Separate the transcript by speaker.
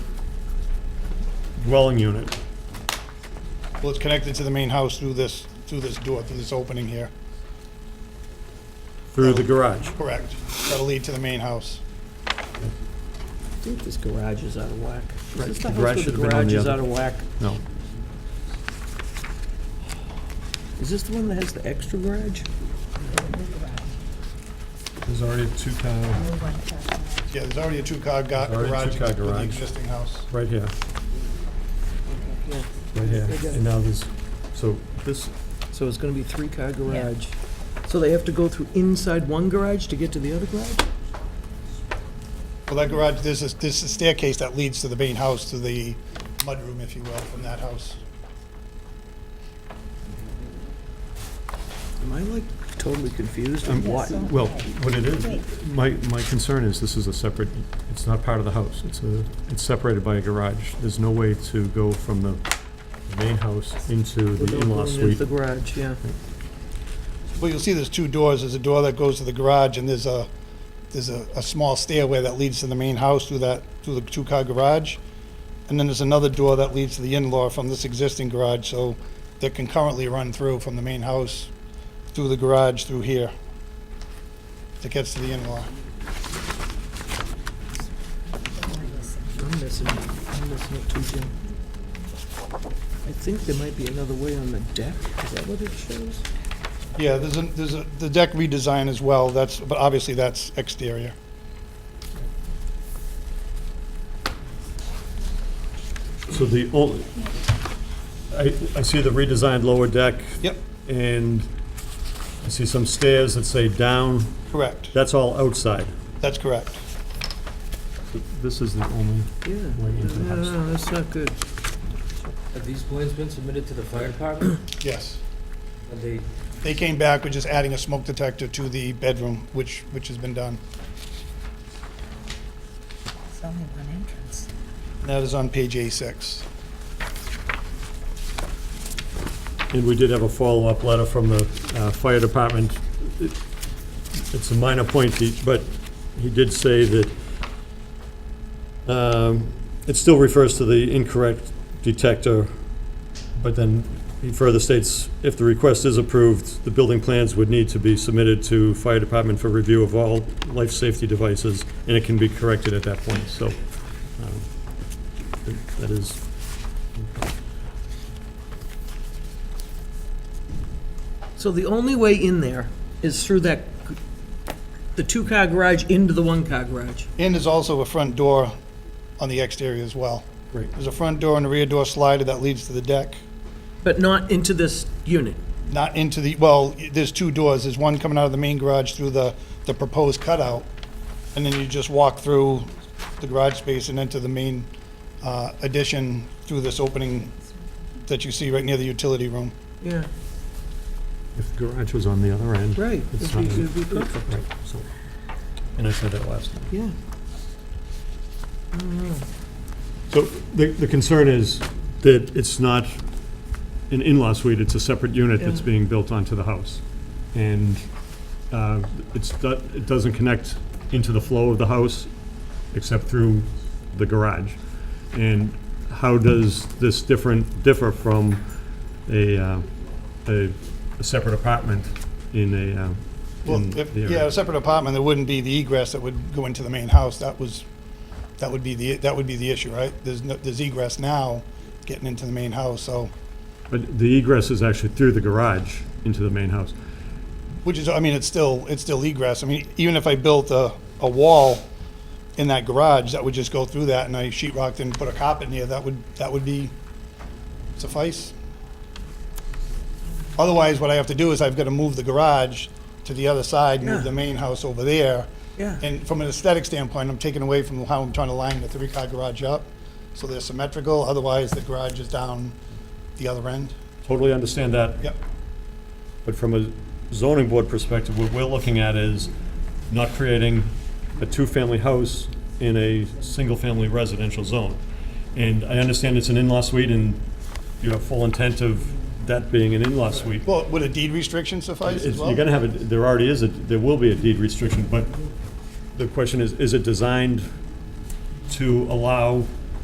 Speaker 1: dwelling unit.
Speaker 2: Well, it's connected to the main house through this, through this door, through this opening here.
Speaker 1: Through the garage.
Speaker 2: Correct. That'll lead to the main house.
Speaker 3: I think this garage is out of whack. Is
Speaker 1: Right,
Speaker 3: this
Speaker 1: the
Speaker 3: the
Speaker 1: garage
Speaker 3: house with the
Speaker 1: should have been on
Speaker 3: garage
Speaker 1: the
Speaker 3: is out
Speaker 1: other-
Speaker 3: of whack?
Speaker 1: No.
Speaker 3: Is this the one that has the extra garage?
Speaker 1: There's already a two-car,
Speaker 2: Yeah, there's already a two-car ga-
Speaker 1: Already a
Speaker 2: garage
Speaker 1: two-car
Speaker 2: with the
Speaker 1: garage.
Speaker 2: existing house.
Speaker 1: right here. Right here. And now there's, so this,
Speaker 3: So it's gonna be three-car garage. So they have to go through inside one garage to get to the other garage?
Speaker 2: Well, that garage, there's a, there's a staircase that leads to the main house, to the mudroom, if you will, from that house.
Speaker 3: Am I like totally confused or
Speaker 1: Um,
Speaker 3: what?
Speaker 1: well, what it is, my, my concern is this is a separate, it's not part of the house. It's a, it's separated by a garage. There's no way to go from the main house into the
Speaker 3: Without
Speaker 1: in-law
Speaker 3: going into
Speaker 1: suite.
Speaker 3: The garage, yeah.
Speaker 2: Well, you'll see there's two doors. There's a door that goes to the garage, and there's a, there's a, a small stairway that leads to the main house through that, through the two-car garage. And then there's another door that leads to the in-law from this existing garage, so they can currently run through from the main house, through the garage, through here, that gets to the in-law.
Speaker 3: I'm missing, I'm missing it too, Jim. I think there might be another way on the deck. Is that what it shows?
Speaker 2: Yeah, there's a, there's a, the deck redesign as well, that's, but obviously that's exterior.
Speaker 1: So the only, I, I see the redesigned lower deck.
Speaker 2: Yep.
Speaker 1: And I see some stairs that say down.
Speaker 2: Correct,
Speaker 1: That's all outside.
Speaker 2: that's correct.
Speaker 1: This is the only
Speaker 3: Yeah.
Speaker 1: way into the
Speaker 3: No, no,
Speaker 1: house.
Speaker 3: no, that's not good.
Speaker 4: Have these plans been submitted to the fire department?
Speaker 2: Yes.
Speaker 4: Have they,
Speaker 2: They came back with just adding a smoke detector to the bedroom, which, which has been done.
Speaker 5: It's only one entrance.
Speaker 2: That is on page A6.
Speaker 1: And we did have a follow-up letter from the uh, fire department. It- It's a minor point, he- but he did say that um, it still refers to the incorrect detector, but then he further states, if the request is approved, the building plans would need to be submitted to fire department for review of all life safety devices, and it can be corrected at that point, so um, that is
Speaker 3: So the only way in there is through that, g- the two-car garage into the one-car garage.
Speaker 2: And there's also a front door on the exterior as well.
Speaker 1: great.
Speaker 2: There's a front door and a rear door slider that leads to the deck,
Speaker 3: But not into this unit.
Speaker 2: not into the, well, there's two doors. There's one coming out of the main garage through the, the proposed cutout, and then you just walk through the garage space and into the main uh, addition through this opening that you see right near the utility room.
Speaker 3: Yeah,
Speaker 1: If the garage was on the other end.
Speaker 3: right. It'd be, it'd be perfect,
Speaker 1: Right, so, and I said that last time.
Speaker 3: yeah.
Speaker 1: So the, the concern is that it's not an in-law suite, it's a separate unit that's
Speaker 3: Yeah.
Speaker 1: being built onto the house. And uh, it's, do- it doesn't connect into the flow of the house except through the garage. And how does this different, differ from a, uh, a a separate apartment in a, uh, in
Speaker 2: Well, if,
Speaker 1: the area?
Speaker 2: yeah, a separate apartment, there wouldn't be the egress that would go into the main house, that was, that would be the, that would be the issue, right? There's no, there's egress now getting into the main house, so,
Speaker 1: But the egress is actually through the garage into the main house.
Speaker 2: which is, I mean, it's still, it's still egress, I mean, even if I built a, a wall in that garage, that would just go through that, and I sheet rocked and put a carpet in there, that would, that would be suffice. Otherwise, what I have to do is I've gotta move the garage to the other side,
Speaker 3: Yeah.
Speaker 2: move the main house over there,
Speaker 3: Yeah.
Speaker 2: And from an aesthetic standpoint, I'm taking away from how I'm trying to line the three-car garage up, so they're symmetrical, otherwise the garage is down the other end.
Speaker 1: Totally understand that,
Speaker 2: Yep,
Speaker 1: but from a zoning board perspective, what we're looking at is not creating a two-family house in a single-family residential zone. And I understand it's an in-law suite, and you have full intent of that being an in-law suite.
Speaker 2: well, would a deed restriction suffice as
Speaker 1: It's-
Speaker 2: well?
Speaker 1: You're gonna have, a there already is, a there will be a deed restriction, but the question is, is it designed to allow